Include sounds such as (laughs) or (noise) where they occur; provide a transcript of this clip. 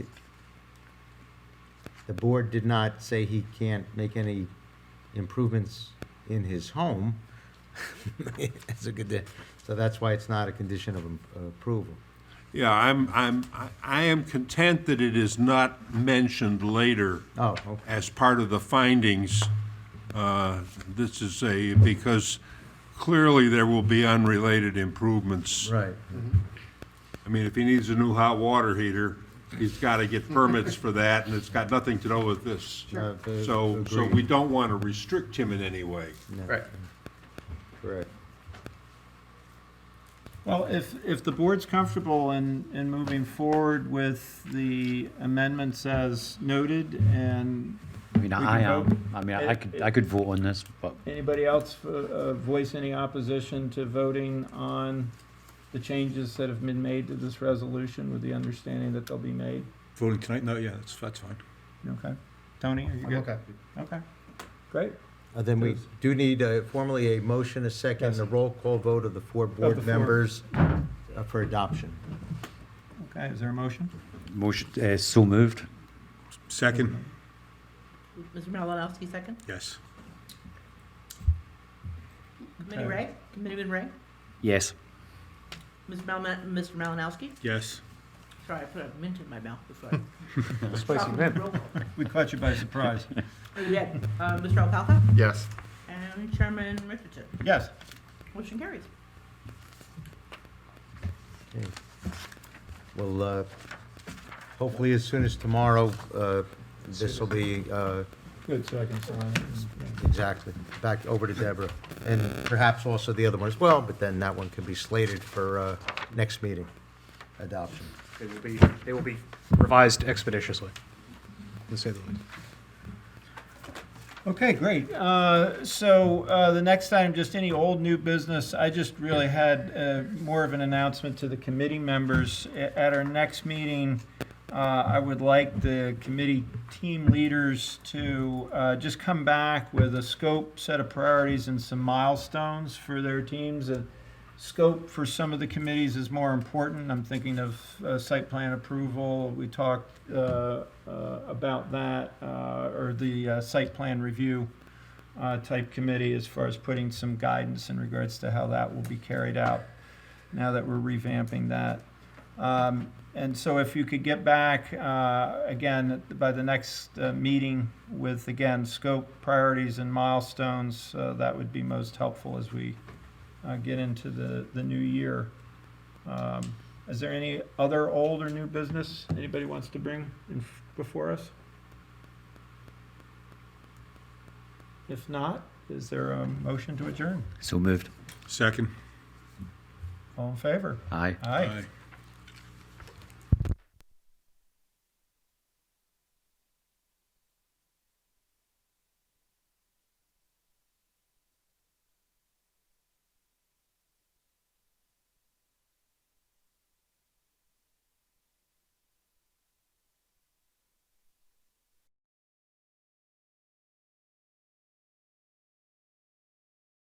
the board did not say he can't make any improvements in his home. (laughs) That's a good, de- so that's why it's not a condition of um, approval. Yeah, I'm, I'm, I- I am content that it is not mentioned later Oh, okay. as part of the findings. Uh, This is a, because clearly there will be unrelated improvements. right. I mean, if he needs a new hot water heater, he's got to get permits for that, and it's got nothing to do with this. Sure. Uh, So, so agreed. we don't want to restrict him in any way. Right. Correct. Well, if, if the board's comfortable in, in moving forward with the amendments as noted, and I mean, can I vote. am, I mean, I could, I could vote on this, but anybody else uh, uh, voice any opposition to voting on the changes that have been made to this resolution with the understanding that they'll be made? Voting tonight? No, yeah, that's, that's fine. Okay. Tony, are you good? Okay. Great. Uh, Then we do need uh, formally a motion, a second, Yes. a roll call vote of the four the board four. members uh, for adoption. Okay, is there a motion? motion, uh, so moved. Second? Mr. Malinowski, second. Yes. Committee Okay. Ray, Committeeman Ray, Yes. Ms. Mal- Mr. Malinowski. Yes. Sorry, I put a mint in my mouth before. Spicy mint. We caught you by (laughs) surprise. We had, uh, Mr. Alfalfa Yes. and Chairman Richardson. Yes. Motion carries. Okay. Well, uh, hopefully as soon as tomorrow, uh, this will be uh, Good, so I can sign it. Exactly. Back over to Deborah. And perhaps also the other one as well, but then that one can be slated for uh, next meeting, adoption. They will be, they will be revised expeditiously, to say the least. Okay, great. Uh, So uh, the next item, just any old new business, I just really had uh, more of an announcement to the committee members. A- At our next meeting, uh, I would like the committee team leaders to uh, just come back with a scope, set of priorities, and some milestones for their teams. And Scope for some of the committees is more important. I'm thinking of uh, site plan approval. We talked uh, uh, about that, uh, or the uh, site plan review uh, type committee as far as putting some guidance in regards to how that will be carried out now that we're revamping that. Um, And so if you could get back, uh, again, by the next uh, meeting with, again, scope, priorities, and milestones, uh, that would be most helpful as we uh, get into the, the new year. Um, Is there any other old or new business anybody wants to bring in f- before us? If not, is there a motion to adjourn? So moved. Second? All in favor? Aye. Aye. Aye.